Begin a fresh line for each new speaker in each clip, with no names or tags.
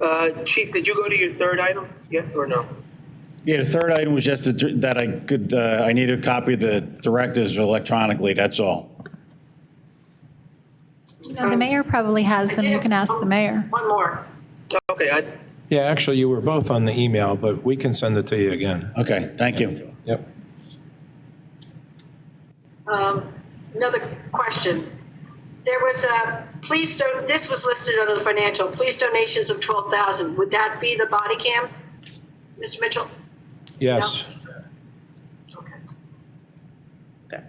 Uh, Chief, did you go to your third item yet or no?
Yeah, the third item was just that that I could, uh, I need a copy of the directives electronically, that's all.
You know, the mayor probably has them. You can ask the mayor.
One more. Okay, I,
Yeah, actually, you were both on the email, but we can send it to you again.
Okay, thank you.
Yep.
Um, Another question. There was a, please don't, this was listed under the financial, police donations of 12,000. Would that be the body cams, Mr. Mitchell?
Yes.
Okay.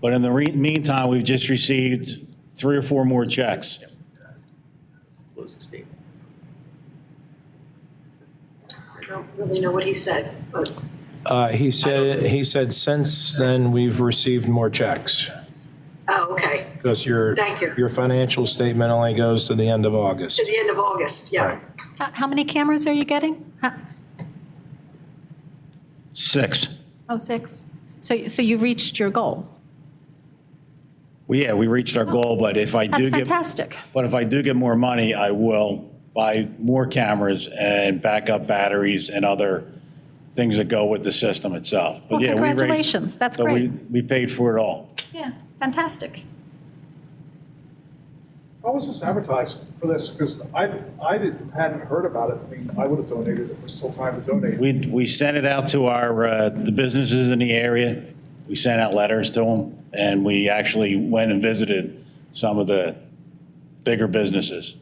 But in the re- meantime, we've just received three or four more checks.
Closing statement.
I don't really know what he said, but
Uh, He said, he said since then, we've received more checks.
Oh, okay.
Because your,
Thank you.
your financial statement only goes to the end of August.
To the end of August,
Right.
yeah.
How, how many cameras are you getting? Huh?
Six.
Oh, six. So, so you've reached your goal.
Well, yeah, we reached our goal, but if I
That's
do get,
fantastic.
but if I do get more money, I will buy more cameras and backup batteries and other things that go with the system itself. But
Well,
yeah, we raised-
congratulations. That's
but we-
great.
We paid for it all.
Yeah, fantastic.
How was this advertised for this? Because I, I didn't, hadn't heard about it. I mean, I would have donated if there's still time to donate.
We, we sent it out to our, uh, the businesses in the area. We sent out letters to them, and we actually went and visited some of the bigger businesses.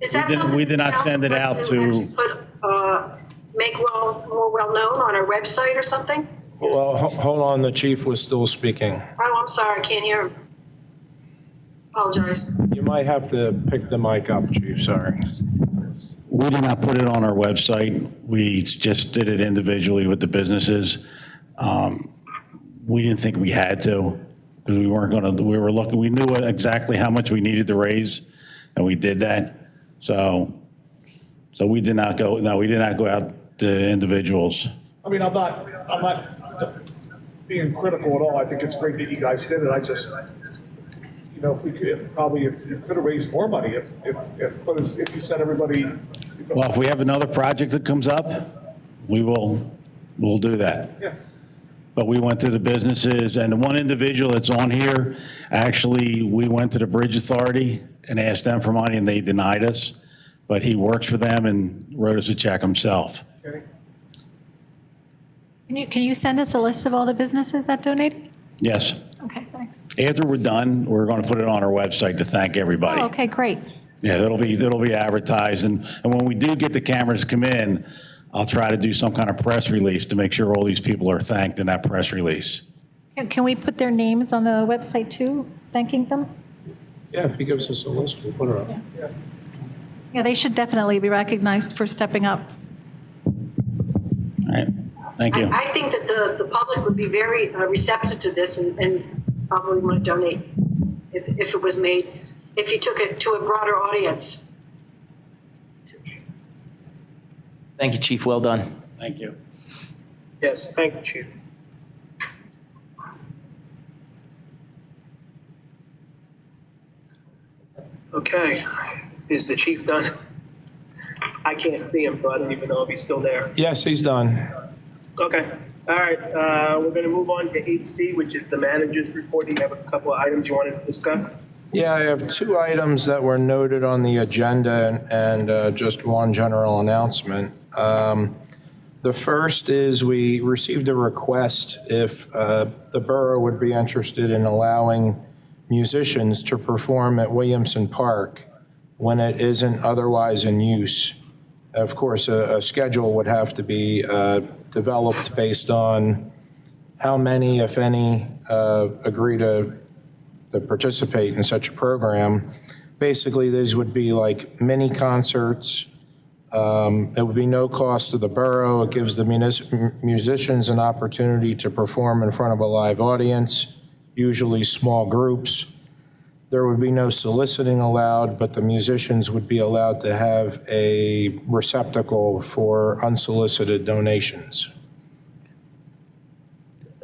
Is that
We did-
something
we did
that
not send it out
Council
to-
actually Put, uh, make well, more well-known on our website or something?
Well, ho- hold on, the chief was still speaking.
Oh, I'm sorry, I can't hear him. Apologize.
You might have to pick the mic up, chief, sorry.
We did not put it on our website. We just did it individually with the businesses. Um, We didn't think we had to, because we weren't going to, we were looking, we knew what- exactly how much we needed to raise, and we did that. So, so we did not go, no, we did not go out to individuals.
I mean, I'm not, I'm not being critical at all. I think it's great that you guys did it. I just, you know, if we could, if probably if you could have raised more money, if, if, if, but it's- if you said everybody. if-
Well, if we have another project that comes up, we will, we'll do that.
Yeah.
But we went to the businesses, and the one individual that's on here, actually, we went to the Bridge Authority and asked them for money, and they denied us. But he works for them and wrote us a check himself.
Okay.
Can you, can you send us a list of all the businesses that donated?
Yes.
Okay, thanks.
After we're done, we're going to put it on our website to thank everybody.
Oh, okay, great.
Yeah, it'll be, it'll be advertised, and, and when we do get the cameras to come in, I'll try to do some kind of press release to make sure all these people are thanked in that press release.
Can- Can we put their names on the website too, thanking them?
Yeah, if he gives us a list, we'll put it up.
Yeah, they should definitely be recognized for stepping up.
All right, thank you.
I, I think that the, the public would be very uh, receptive to this and, and probably want to donate if, if it was made, if you took it to a broader audience.
Thank you, Chief. Well done.
Thank you.
yes, thank you, Chief. Okay, is the chief done? I can't see him, so I don't even know if he's still there.
Yes, he's done.
Okay, all right, uh, we're gonna move on to eight C, which is the manager's report. Do you have a couple of items you want to discuss?
Yeah, I have two items that were noted on the agenda and- and uh, just one general announcement. Um, The first is we received a request if uh, the borough would be interested in allowing musicians to perform at Williamson Park when it isn't otherwise in use. Of course, a a schedule would have to be uh, developed based on how many, if any, uh, agree to that participate in such a program. Basically, these would be like mini concerts. Um, It would be no cost to the borough. It gives the munis- musicians an opportunity to perform in front of a live audience, usually small groups. There would be no soliciting allowed, but the musicians would be allowed to have a receptacle for unsolicited donations.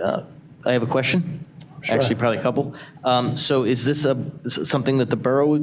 I have a question. Actually, probably a couple. Um, So is this a, is it something that the borough would be